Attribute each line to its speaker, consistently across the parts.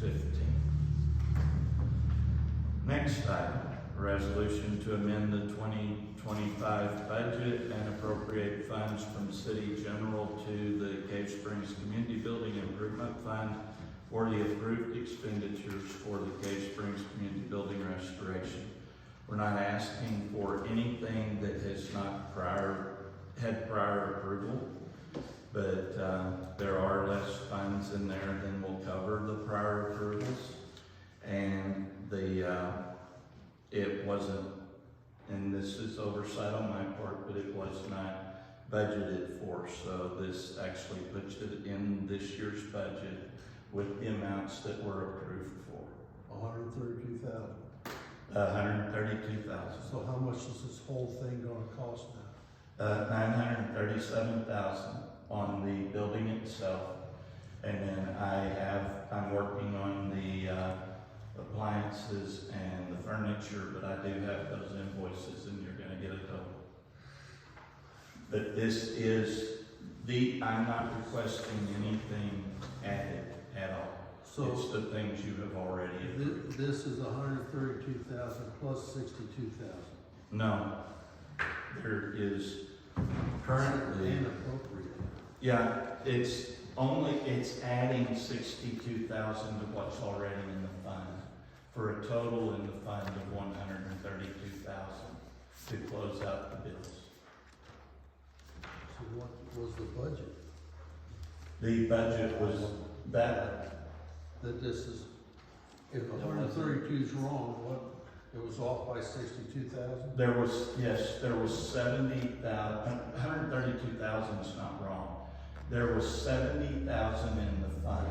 Speaker 1: fifteen. Next item, resolution to amend the twenty twenty-five budget and appropriate funds from city general to the Cave Springs Community Building Improvement Fund for the approved expenditures for the Cave Springs Community Building Restoration. We're not asking for anything that has not prior, had prior approval. But, uh, there are less funds in there than will cover the prior approvals. And the, uh, it wasn't, and this is oversight on my part, but it was not budgeted for. So this actually puts it in this year's budget with the amounts that were approved for.
Speaker 2: hundred and thirty-two thousand.
Speaker 1: A hundred and thirty-two thousand,
Speaker 2: So how much is this whole thing gonna cost now?
Speaker 1: uh, nine hundred and thirty-seven thousand on the building itself. And then I have, I'm working on the, uh, appliances and the furniture, but I do have those invoices and you're gonna get a total. But this is the, I'm not requesting anything added at all.
Speaker 2: So
Speaker 1: It's the things you have already approved.
Speaker 2: thi- this is hundred and thirty-two thousand plus sixty-two thousand.
Speaker 1: No. There is currently.
Speaker 2: Inappropriate.
Speaker 1: Yeah, it's only, it's adding sixty-two thousand to what's already in the fund, for a total in the fund of one hundred and thirty-two thousand to close out the bills.
Speaker 2: So what was the budget?
Speaker 1: The budget was that,
Speaker 2: That this is, if
Speaker 1: That
Speaker 2: hundred and
Speaker 1: wasn't-
Speaker 2: thirty-two is wrong, what, it was off by sixty-two thousand?
Speaker 1: there was, yes, there was seventy thousand, hundred and thirty-two thousand is not wrong. There was seventy thousand in the fund.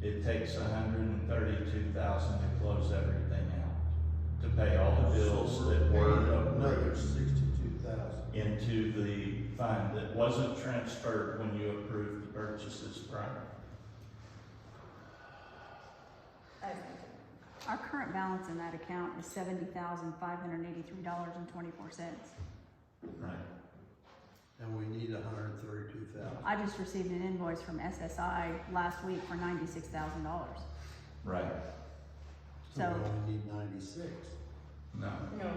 Speaker 1: It takes hundred and thirty-two thousand to close everything out, to pay all the bills that were approved.
Speaker 2: Another sixty-two thousand.
Speaker 1: into the fund that wasn't transferred when you approved the purchases prior.
Speaker 3: Our current balance in that account is seventy thousand five hundred eighty-three dollars and twenty-four cents.
Speaker 1: Right.
Speaker 2: And we need hundred and thirty-two thousand.
Speaker 3: I just received an invoice from SSI last week for ninety-six thousand dollars.
Speaker 1: Right.
Speaker 2: So
Speaker 3: So-
Speaker 2: we only need ninety-six.
Speaker 1: No,
Speaker 4: No,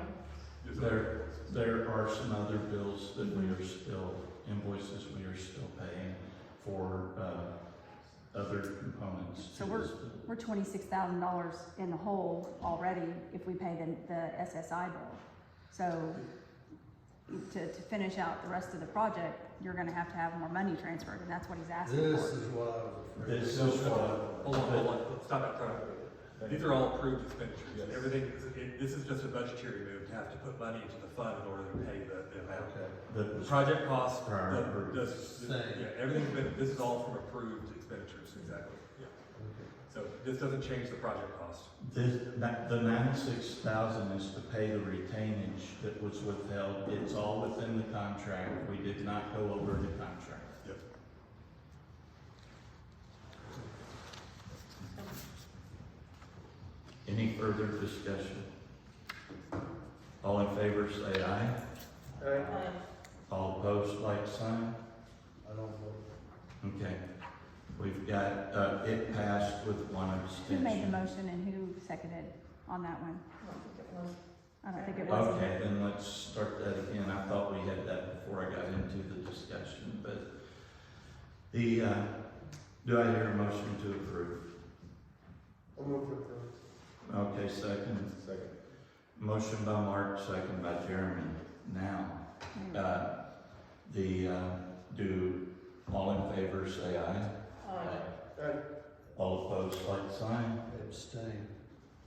Speaker 1: there, there are some other bills that we are still, invoices we are still paying for, uh, other components to
Speaker 3: So we're-
Speaker 1: this bill.
Speaker 3: We're twenty-six thousand dollars in the hole already if we pay the, the SSI bill. So to, to finish out the rest of the project, you're gonna have to have more money transferred, and that's what he's asking
Speaker 2: This
Speaker 3: for.
Speaker 2: is what I was afraid.
Speaker 1: This
Speaker 2: of.
Speaker 1: is what,
Speaker 5: Hold on, hold on, stop it, stop it. These are all approved expenditures, everything, it- this is just a budgetary move to have to put money into the fund in order to pay the, the amount.
Speaker 2: Okay.
Speaker 1: the,
Speaker 5: The project costs,
Speaker 1: Prior
Speaker 5: the,
Speaker 1: approved.
Speaker 5: the,
Speaker 2: Same.
Speaker 5: yeah, everything's been, this is all from approved expenditures, exactly, yeah. So this doesn't change the project cost.
Speaker 1: this, that, the ninety-six thousand is to pay the retainage that was withheld. It's all within the contract. We did not go over the contract. Any further discussion? All in favor, say aye.
Speaker 4: uh,
Speaker 1: All opposed, like sign.
Speaker 2: I don't know.
Speaker 1: Okay. We've got, uh, it passed with one
Speaker 3: Who made the
Speaker 1: abstention.
Speaker 3: motion and who seconded on that one?
Speaker 4: I don't think it was.
Speaker 3: I don't think it was.
Speaker 1: Okay, then let's start that again. I thought we had that before I got into the discussion, but the, uh, do I hear a motion to approve?
Speaker 2: I'm
Speaker 1: Okay, second.
Speaker 2: Second.
Speaker 1: Motion by Mark, second by Jeremy. Now,
Speaker 3: Anyway.
Speaker 1: Uh, The, uh, do, all in favor, say aye.
Speaker 4: Uh,
Speaker 2: Aye.
Speaker 1: All opposed, like sign.
Speaker 2: Abstain.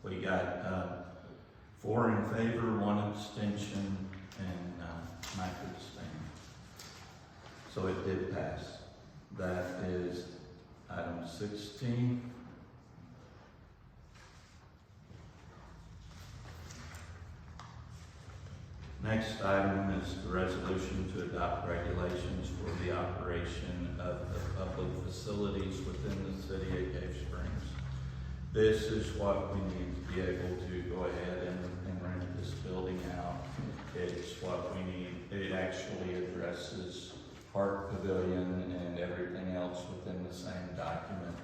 Speaker 1: We got uh, four in favor, one abstention, and uh, Mike abstained. So it did pass. That is item sixteen. Next item is the resolution to adopt regulations for the operation of the public facilities within the city of Cave Springs. This is what we need to be able to go ahead and, and rent this building out. It's what we need, it actually addresses Park Pavilion and everything else within the same document.